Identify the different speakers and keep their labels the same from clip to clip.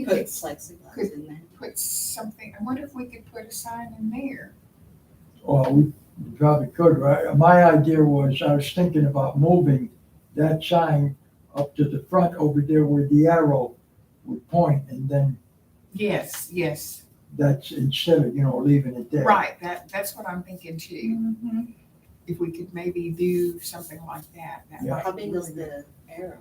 Speaker 1: You could plexiglass in there.
Speaker 2: put something, I wonder if we could put a sign in there.
Speaker 3: Well, we probably could, right? My idea was, I was thinking about moving that sign up to the front over there where the arrow would point, and then
Speaker 2: Yes, yes,
Speaker 3: that's instead of, you know, leaving it there.
Speaker 2: right, that, that's what I'm thinking too. If we could maybe do something like that. that
Speaker 3: Yeah.
Speaker 2: might
Speaker 1: How
Speaker 2: be
Speaker 1: big was
Speaker 2: really-
Speaker 1: the arrow?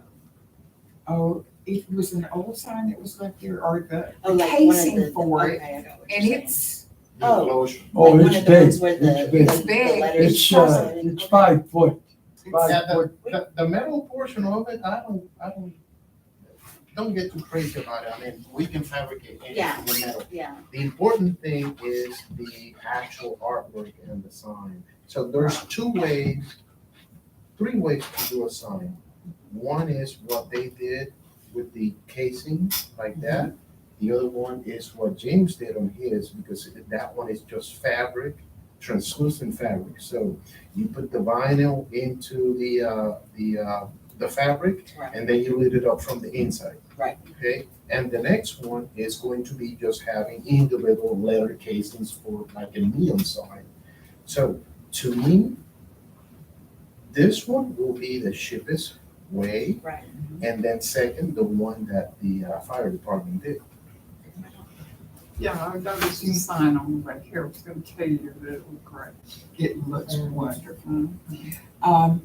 Speaker 2: Oh, it was an old sign that was left there or the
Speaker 1: Oh, like one of
Speaker 2: casing
Speaker 1: the- the-
Speaker 2: for it,
Speaker 1: okay, I got what you're
Speaker 2: And
Speaker 1: saying.
Speaker 2: it's,
Speaker 1: Oh.
Speaker 3: Oh,
Speaker 1: Like
Speaker 3: it's
Speaker 1: One of the
Speaker 3: big,
Speaker 1: ones where the,
Speaker 3: it's
Speaker 1: the-
Speaker 3: big.
Speaker 1: the
Speaker 2: Big.
Speaker 1: letters.
Speaker 3: It's,
Speaker 1: cross
Speaker 3: uh,
Speaker 1: it and-
Speaker 3: it's five foot,
Speaker 2: it's,
Speaker 3: five
Speaker 4: Yeah,
Speaker 3: foot.
Speaker 4: The, the metal portion of it, I don't, I don't, don't get too crazy about it, I mean, we can fabricate
Speaker 1: Yeah.
Speaker 4: anything with metal.
Speaker 1: Yeah,
Speaker 4: The important thing is the actual artwork and the sign. So there's two ways, three ways to do a sign. One is what they did with the casing like that. The other one is what James did on his, because that one is just fabric, translucent fabric. So you put the vinyl into the, uh, the, uh, the fabric
Speaker 1: right,
Speaker 4: and then you lit it up from the inside.
Speaker 1: Right.
Speaker 4: Okay, and the next one is going to be just having individual letter casings for like a neon sign. So to me, this one will be the cheapest way,
Speaker 1: right.
Speaker 4: and then second, the one that the uh, fire department did.
Speaker 5: Yeah, I noticed you sign on right here, I was gonna tell you that it looked great,
Speaker 2: it looks
Speaker 5: wonderful.
Speaker 2: Um,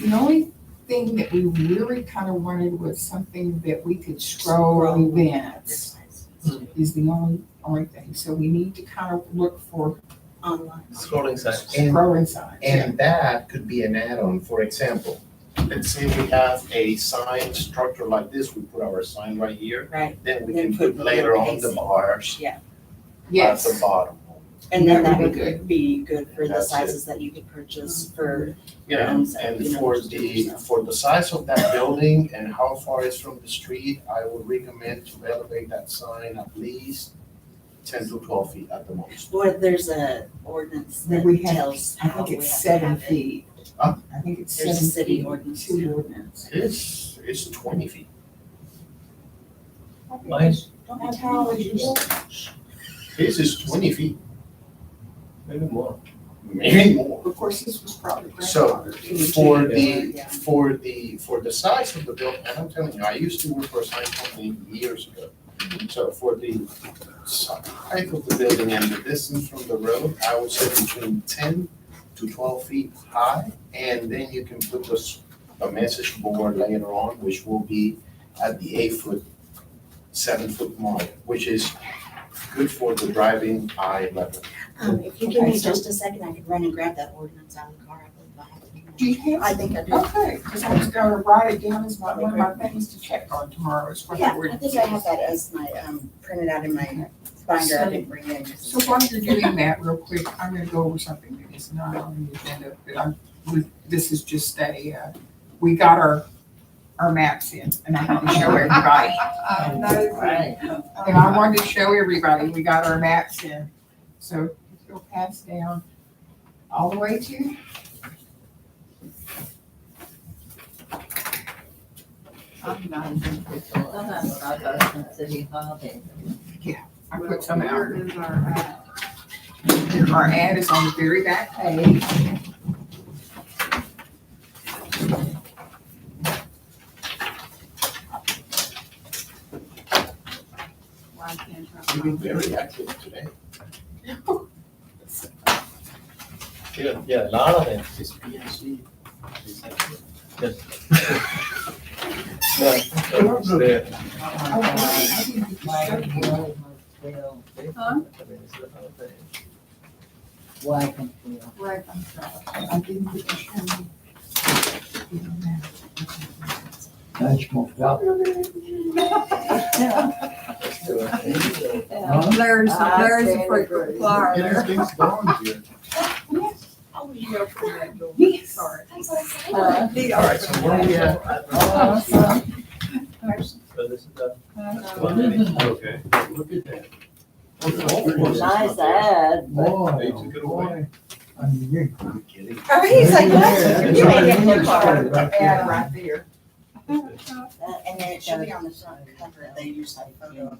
Speaker 2: the only thing that we really kind of wanted was something that we could scroll
Speaker 1: Scroll.
Speaker 2: events
Speaker 1: This size.
Speaker 2: is the only, only thing. So we need to kind of look for
Speaker 1: Online.
Speaker 6: Scrolling signs.
Speaker 4: And-
Speaker 2: scrolling signs.
Speaker 4: And that could be an add-on, for example, let's say we have a sign structure like this, we put our sign right here,
Speaker 1: Right,
Speaker 4: then we
Speaker 1: Then
Speaker 4: can
Speaker 1: put
Speaker 4: put
Speaker 1: the
Speaker 4: later
Speaker 1: little
Speaker 4: on the
Speaker 1: casing.
Speaker 4: bars at the
Speaker 2: Yes,
Speaker 4: bottom.
Speaker 1: and then that
Speaker 2: That would be
Speaker 1: would be good for the
Speaker 4: That's it.
Speaker 1: sizes that you could purchase for.
Speaker 4: you
Speaker 1: Yeah.
Speaker 4: know,
Speaker 1: You
Speaker 4: and
Speaker 1: know,
Speaker 4: for
Speaker 1: just do it
Speaker 4: the,
Speaker 1: yourself.
Speaker 4: for the size of that building and how far it's from the street, I would recommend to elevate that sign at least ten to twelve feet at the most.
Speaker 1: Or there's a ordinance
Speaker 2: Then
Speaker 1: that
Speaker 2: we have-
Speaker 1: tells
Speaker 2: I
Speaker 1: how
Speaker 2: think
Speaker 1: we have
Speaker 2: it's
Speaker 1: to
Speaker 2: seven
Speaker 1: have it.
Speaker 2: feet.
Speaker 4: Huh?
Speaker 2: I think it's seven
Speaker 1: There's a
Speaker 2: feet.
Speaker 1: city ordinance.
Speaker 2: City ordinance.
Speaker 4: It's, it's twenty feet.
Speaker 6: Mine's
Speaker 1: Don't
Speaker 2: How
Speaker 1: have
Speaker 2: tall is yours?
Speaker 4: This is twenty feet,
Speaker 6: maybe more.
Speaker 4: maybe more.
Speaker 2: Of course, this was probably
Speaker 4: So,
Speaker 2: grandfathered.
Speaker 4: For
Speaker 1: Yeah.
Speaker 4: the, for the, for the size of the building, and I'm telling you, I used to work for a sign company years ago. So for the size of the building and the distance from the road, I would say between ten to twelve feet high. And then you can put this, a message board later on, which will be at the eight foot, seven foot mark, which is good for the driving eye level.
Speaker 1: Um, if you give
Speaker 2: Okay,
Speaker 1: me
Speaker 2: so-
Speaker 1: just a second, I could run and grab that ordinance out of the car. I believe I have it.
Speaker 2: Do you
Speaker 1: I
Speaker 2: have,
Speaker 1: think I do.
Speaker 2: okay, because I was gonna write it down as my, one of my things to check on tomorrow is what the
Speaker 1: Yeah, I
Speaker 2: ordinance
Speaker 1: think
Speaker 2: is.
Speaker 1: I have that as my, um, printed out in my binder, I didn't bring it in.
Speaker 2: So while you're doing that real quick, I'm gonna go over something that is not on the agenda, but I'm, we, this is just a, uh, we got our, our maps in and I had to show everybody.
Speaker 5: I noticed.
Speaker 2: And I wanted to show everybody, we got our maps in. So if you'll pass down all the way to.
Speaker 5: I'm not even with the last.
Speaker 2: I put some out.
Speaker 5: Where is our at?
Speaker 2: Our ad is on the very back page.
Speaker 5: Why can't I
Speaker 4: You've
Speaker 5: find
Speaker 4: been
Speaker 5: it?
Speaker 4: very active today.
Speaker 6: Yeah, yeah, a lot of them.
Speaker 4: It's PNC.
Speaker 6: Yeah. so it's there.
Speaker 2: Oh,
Speaker 5: Huh?
Speaker 6: I mean, it's the whole thing.
Speaker 7: Why conceal?
Speaker 5: Where can I
Speaker 2: I didn't get to show you.
Speaker 3: That's smoked out.
Speaker 6: Let's do it.
Speaker 3: Huh?
Speaker 8: Larry's,
Speaker 7: I
Speaker 8: Larry's a
Speaker 7: stand
Speaker 8: frequent
Speaker 7: agree.
Speaker 8: flyer.
Speaker 4: Getting things going here.
Speaker 5: Oh, you go for that door.
Speaker 2: Yes.
Speaker 5: Sorry.
Speaker 7: Uh,
Speaker 5: Need
Speaker 4: All right, so where are we at?
Speaker 2: Uh-huh. Oh,
Speaker 7: uh,
Speaker 6: So this is the-
Speaker 5: I know.
Speaker 6: one. Okay.
Speaker 4: Look at that.
Speaker 7: Nice ad.
Speaker 3: Boy,
Speaker 6: They took it away.
Speaker 3: boy. I mean, you.
Speaker 4: I'm kidding.
Speaker 1: Oh, he's like,
Speaker 3: Yeah,
Speaker 1: what?
Speaker 3: that's
Speaker 1: You
Speaker 3: right.
Speaker 1: ain't getting your car.
Speaker 3: Right there.
Speaker 2: Ad right there.
Speaker 6: This is-
Speaker 1: And then it should be on the front cover, they use that photo of